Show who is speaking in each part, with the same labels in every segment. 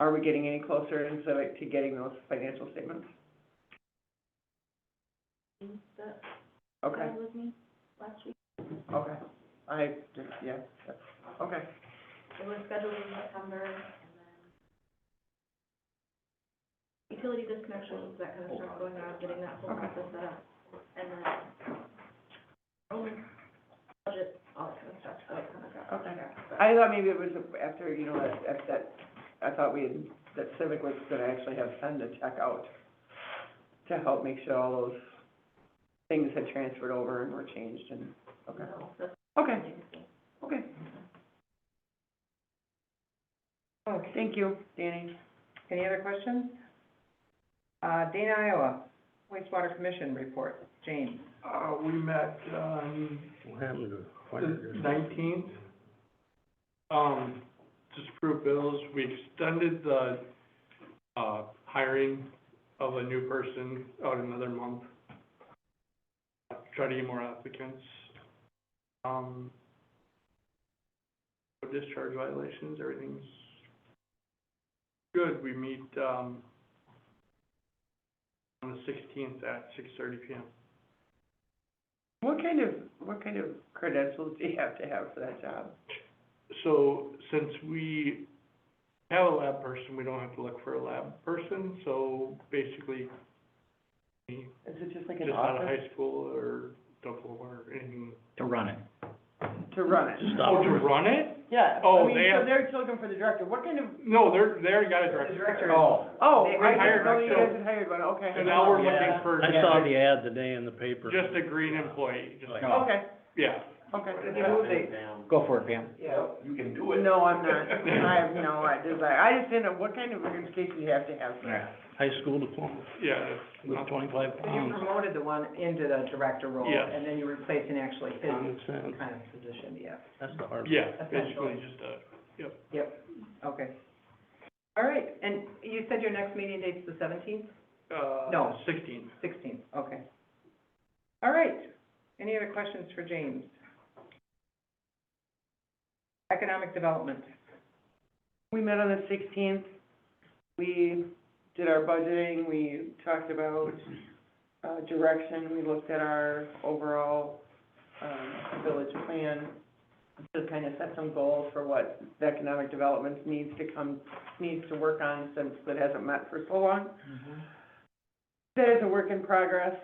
Speaker 1: are we getting any closer and so to getting those financial statements?
Speaker 2: that
Speaker 1: Okay,
Speaker 2: was me last week.
Speaker 1: okay. I just, yeah, that's- okay.
Speaker 2: It was scheduled in September and then utility disconnections, that kind of stuff going on, getting that whole
Speaker 1: Okay.
Speaker 2: process set up. And then um, budget, all that kind of stuff, so it kind of got.
Speaker 1: Okay. I thought maybe it was after, you know, that- that, that, I thought we, had- that Civic was gonna actually have send a check out to help make sure all those things had transferred over and were changed and, okay,
Speaker 2: No, that's
Speaker 1: okay,
Speaker 2: amazing.
Speaker 1: okay.
Speaker 3: Okay,
Speaker 1: Oh, Thank you, Danny.
Speaker 3: any other questions? Uh, Dana, Iowa, wastewater commission report, Jane.
Speaker 4: Uh, we met uh, on
Speaker 5: What happened to fire?
Speaker 4: the nineteenth. Um, just approved bills, we extended the, uh, hiring of a new person out another month. Try to get more applicants. Um, no discharge violations, everything's good, we meet, um, on the sixteenth at six thirty P M.
Speaker 1: What kind of, what kind of credentials do you have to have for that job?
Speaker 4: So since we have a lab person, we don't have to look for a lab person, so basically
Speaker 1: Is it just like
Speaker 4: just
Speaker 1: an
Speaker 4: out of
Speaker 1: office?
Speaker 4: high school or double or anything.
Speaker 5: To run it.
Speaker 1: To run it?
Speaker 5: Stop.
Speaker 4: Oh, to run it?
Speaker 1: Yeah, I
Speaker 4: Oh,
Speaker 1: mean,
Speaker 4: they
Speaker 1: so
Speaker 4: have-
Speaker 1: they're looking for the director, what kind of?
Speaker 4: No, they're, they already got a director.
Speaker 1: Oh. Oh,
Speaker 4: They
Speaker 1: I didn't
Speaker 4: hired
Speaker 1: know you guys
Speaker 4: director.
Speaker 1: had hired one, okay.
Speaker 4: So now we're looking
Speaker 5: Yeah.
Speaker 4: for
Speaker 5: I saw the ad today in the paper.
Speaker 4: just a green employee, just,
Speaker 5: Oh.
Speaker 1: Okay,
Speaker 4: yeah.
Speaker 1: okay.
Speaker 5: Go for it, Pam.
Speaker 1: Yeah.
Speaker 6: You can do it.
Speaker 1: No, I'm not, I have no desire, I just didn't know, what kind of education do you have to have?
Speaker 5: High school diploma
Speaker 4: Yeah, that's
Speaker 5: with
Speaker 4: not,
Speaker 5: twenty-five
Speaker 3: So you
Speaker 5: pounds.
Speaker 3: promoted the one into the director role,
Speaker 4: Yes.
Speaker 3: and then you replaced an actually his
Speaker 5: Common sense.
Speaker 3: kind of position, yeah,
Speaker 5: That's the hard.
Speaker 4: yeah, basically just a,
Speaker 3: yep, okay. All right, and you said your next meeting date's the seventeenth,
Speaker 4: uh,
Speaker 3: No.
Speaker 4: sixteen.
Speaker 3: sixteenth, okay. All right, any other questions for James? Economic development,
Speaker 1: We met on the sixteenth, we did our budgeting, we talked about, uh, direction, we looked at our overall, um, village plan, to kind of set some goals for what the economic development needs to come, needs to work on since it hasn't met for so long. That is a work in progress.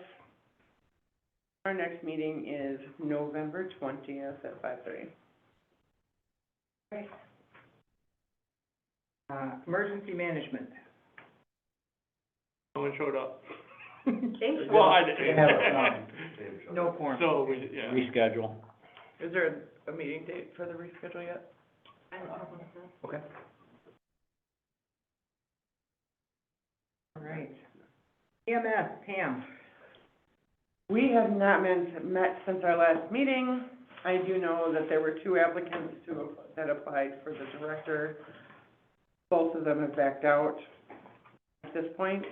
Speaker 1: Our next meeting is November twentieth at five thirty.
Speaker 3: uh, emergency management.
Speaker 4: No one showed up.
Speaker 3: Thank
Speaker 4: Well, I did.
Speaker 5: They have a sign.
Speaker 3: No quorum.
Speaker 4: So we, yeah.
Speaker 5: Reschedule.
Speaker 1: Is there a meeting date for the reschedule yet?
Speaker 2: I don't know what it is.
Speaker 5: Okay.
Speaker 3: All right. EMS, Pam.
Speaker 1: We have not met, met since our last meeting. I do know that there were two applicants to, that applied for the director. Both of them have backed out at this point.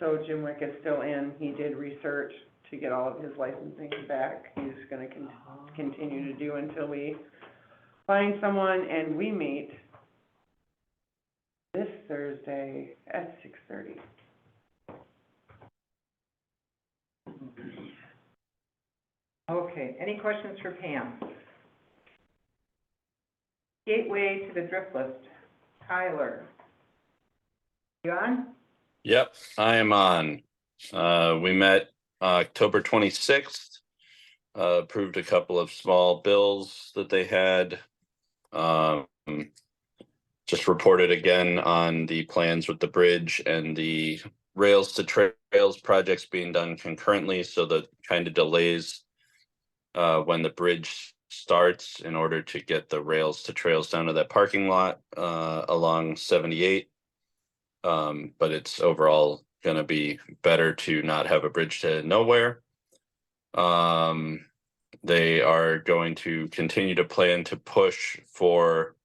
Speaker 1: So Jim Wick is still in. He did research to get all of his licensing back. He's gonna con- continue to do until we find someone and we meet this Thursday at six thirty.
Speaker 3: Okay, any questions for Pam? Gateway to the drip list, Tyler. You on?
Speaker 7: Yep, I am on. Uh, we met uh, October twenty-sixth. Uh, approved a couple of small bills that they had. Um, just reported again on the plans with the bridge and the rails to tra- trails projects being done concurrently, so the kind of delays uh, when the bridge starts in order to get the rails to trails down to that parking lot uh, along seventy-eight. Um, but it's overall gonna be better to not have a bridge to nowhere. Um, they are going to continue to plan to push for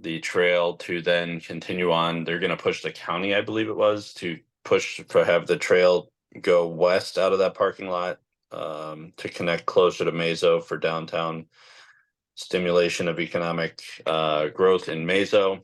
Speaker 7: the trail to then continue on. They're gonna push the county, I believe it was, to push for have the trail go west out of that parking lot um, to connect closer to Mazo for downtown stimulation of economic uh, growth in Mazo.